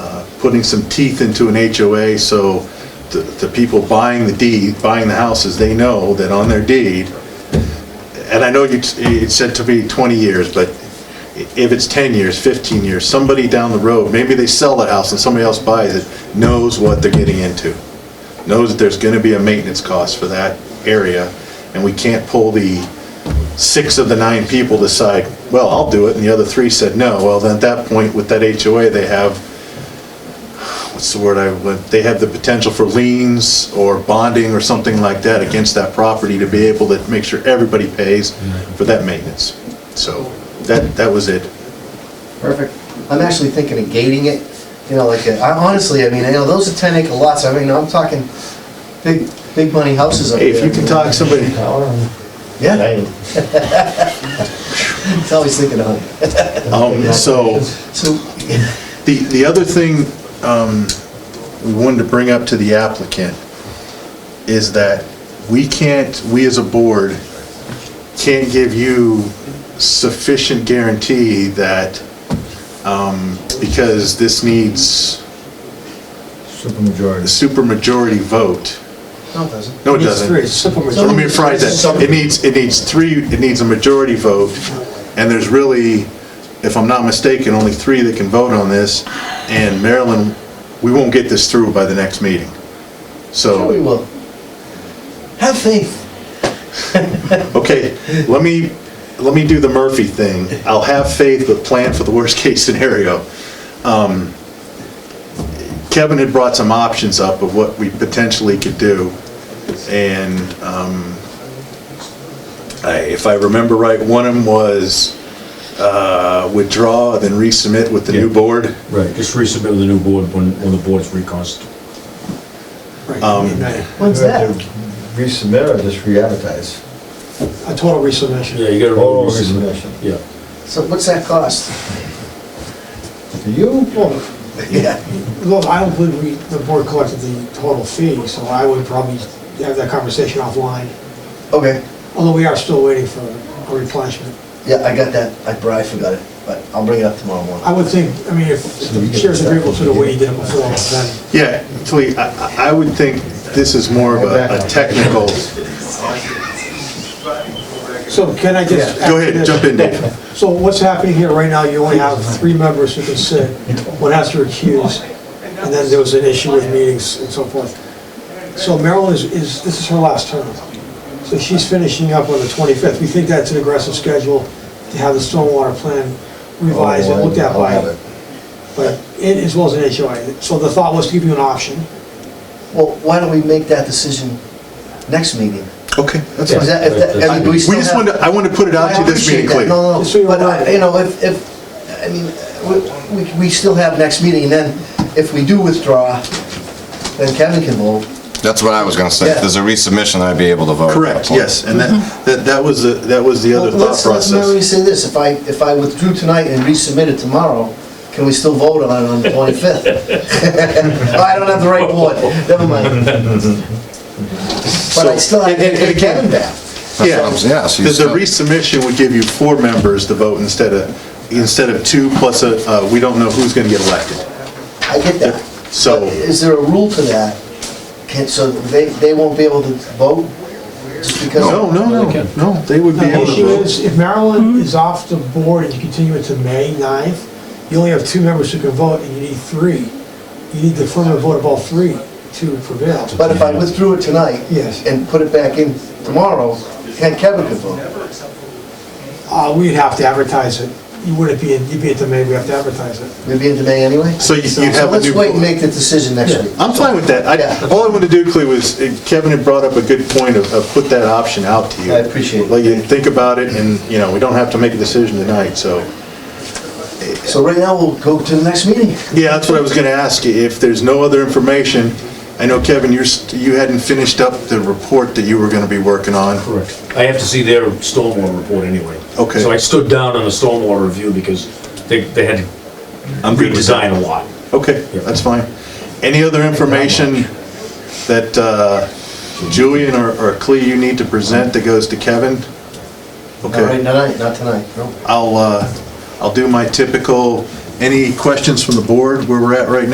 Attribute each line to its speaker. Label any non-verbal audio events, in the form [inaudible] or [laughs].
Speaker 1: uh, putting some teeth into an HOA so the, the people buying the deed, buying the houses, they know that on their deed, and I know you, it said to be 20 years, but if it's 10 years, 15 years, somebody down the road, maybe they sell the house and somebody else buys it, knows what they're getting into. Knows that there's gonna be a maintenance cost for that area, and we can't pull the six of the nine people decide, well, I'll do it, and the other three said no. Well, then at that point, with that HOA, they have, what's the word I, would- they have the potential for liens or bonding or something like that against that property to be able to make sure everybody pays for that maintenance. So that, that was it.
Speaker 2: Perfect. I'm actually thinking of gating it, you know, like, uh, I honestly, I mean, you know, those are ten acre lots, I mean, I'm talking big, big money houses up there.
Speaker 1: Hey, if you can talk somebody,
Speaker 2: Yeah,
Speaker 3: Name.
Speaker 2: it's always thinking of it.
Speaker 1: um, so.
Speaker 2: So, [laughs]
Speaker 1: The, the other thing um, we wanted to bring up to the applicant is that we can't, we as a board, can't give you sufficient guarantee that, um, because this needs a
Speaker 3: Supermajority.
Speaker 1: supermajority vote.
Speaker 2: no, it doesn't.
Speaker 1: No, it
Speaker 3: Needs
Speaker 1: doesn't.
Speaker 3: three, supermajority.
Speaker 1: Let me rephrase that. It needs, it needs three, it needs a majority vote, and there's really, if I'm not mistaken, only three that can vote on this, and Maryland, we won't get this through by the next meeting.
Speaker 2: Sure we
Speaker 1: So,
Speaker 2: will. Have faith.
Speaker 1: okay, let me, let me do the Murphy thing. I'll have faith, but plan for the [laughs] worst-case scenario. Um, Kevin had brought some options up of what we potentially could do, and um, I- if I remember right, one of them was uh, withdraw, then resubmit with the new
Speaker 3: Yeah.
Speaker 1: board.
Speaker 3: Right, just resubmit with the new board when, when the board's reconstituted.
Speaker 1: Um,
Speaker 4: uh,
Speaker 2: When's
Speaker 5: You have
Speaker 2: that?
Speaker 5: to Resubmit or just re-advertise?
Speaker 4: A total resubmission.
Speaker 3: Yeah, you gotta.
Speaker 5: Oh,
Speaker 3: resubmit.
Speaker 5: resubmission.
Speaker 3: Yeah.
Speaker 2: So what's that
Speaker 1: [laughs]
Speaker 2: cost?
Speaker 5: Do you?
Speaker 4: Well,
Speaker 2: Yeah.
Speaker 4: look, I don't believe we, the board collected the total fee, so I would probably have that conversation offline,
Speaker 2: [laughs] Okay,
Speaker 4: although we are still waiting for a replenishment.
Speaker 2: yeah, I got that, I, bro, I forgot it, but I'll bring it up tomorrow morning.
Speaker 4: I would think, I mean, if if the chair's agreeable to the way you did it before, then
Speaker 1: Yeah, actually, I I- I would think this is more of a a technical,
Speaker 2: [laughs]
Speaker 4: So can I just?
Speaker 1: go ahead, jump in, Dave.
Speaker 4: So what's happening here right now, you only have three members who can sit, one has to recuse, and then there was an issue with meetings and so forth. So Marilyn is, is, this is her last term. So she's finishing up on the 25th. We think that's an aggressive schedule to have the stormwater plan revised and looked at
Speaker 1: Oh,
Speaker 5: I'll have
Speaker 4: by,
Speaker 5: it.
Speaker 4: but it, as well as an HOA. So the thought was to give you an option.
Speaker 2: Well, why don't we make that decision next meeting?
Speaker 1: Okay, that's
Speaker 2: Is
Speaker 1: fine.
Speaker 2: that, if that, I mean, do we
Speaker 1: We
Speaker 2: still
Speaker 1: just
Speaker 2: have-
Speaker 1: wanted, to- I want to put it out to you this meeting,
Speaker 2: I
Speaker 1: clear.
Speaker 2: appreciate that. No,
Speaker 4: Just so
Speaker 2: no,
Speaker 4: you're
Speaker 2: but,
Speaker 4: aware.
Speaker 2: I- you know, if, if, I mean, we- we, we still have next meeting, and then if we do withdraw, then Kevin can vote.
Speaker 6: That's what I was gonna say.
Speaker 2: Yeah.
Speaker 6: If there's a resubmission, I'd be able to vote.
Speaker 1: Correct, yes, and
Speaker 2: Mm-hmm.
Speaker 1: that, that that was, the that was the other
Speaker 2: Well,
Speaker 1: thought
Speaker 2: let's- Let's
Speaker 1: process.
Speaker 2: merely say this, if I, if I withdrew tonight and resubmitted tomorrow, can we still vote on it on the [laughs] 25th? I don't have the right board, never mind. But I still
Speaker 1: So,
Speaker 2: have
Speaker 1: and- and- and
Speaker 2: to
Speaker 1: again-
Speaker 2: Kevin back.
Speaker 1: Yeah,
Speaker 6: That's what I'm- yeah, so you
Speaker 1: The- the
Speaker 6: still-
Speaker 1: resubmission would give you four members to vote instead of, instead of two plus a, uh, we don't know who's gonna get elected.
Speaker 2: I get that.
Speaker 1: So-
Speaker 2: But Is there a rule to that? Can, so they, they won't be able to vote? Just because?
Speaker 1: No, no, no, no, they would be
Speaker 4: The
Speaker 1: able
Speaker 4: issue
Speaker 1: to
Speaker 4: is,
Speaker 1: vote.
Speaker 4: if Maryland is off the board and you continue it to May 9th, you only have two members who can vote, and you need three. You need the affirmative vote of all three to prevail.
Speaker 2: But if I withdrew it tonight?
Speaker 4: Yes.
Speaker 2: And put it back in tomorrow, then Kevin could vote.
Speaker 4: Uh, we'd have to advertise it. You wouldn't be, in- you'd be at the May, we have to advertise it.
Speaker 2: We'd be in May anyway?
Speaker 1: So you- you'd have a
Speaker 2: let's
Speaker 1: new
Speaker 2: wait
Speaker 1: vote.
Speaker 2: and make the decision next week.
Speaker 1: I'm fine with that.
Speaker 2: Yeah.
Speaker 1: I, all I wanted to do, Clea, was, uh, Kevin had brought up a good point of, of put that option out to you.
Speaker 2: I appreciate it.
Speaker 1: Let you think about it, and, you know, we don't have to make a decision tonight, so.
Speaker 2: So right now, we'll go to the next meeting.
Speaker 1: Yeah, that's what I was gonna ask you, if there's no other information, I know, Kevin, you're, st- you hadn't finished up the report that you were gonna be working on.
Speaker 3: Correct. I have to see their stormwater report anyway.
Speaker 1: Okay.
Speaker 3: So I stood down on the stormwater review because they, they had to
Speaker 1: I'm good with that.
Speaker 3: redesign a lot.
Speaker 1: Okay,
Speaker 3: Yeah.
Speaker 1: that's fine. Any other information that uh, Julian or or Clea you need to present that goes to Kevin?
Speaker 2: All right,
Speaker 1: Okay,
Speaker 2: tonight, not tonight, no.
Speaker 1: I'll, uh, I'll do my typical, any questions from the board where we're at right now?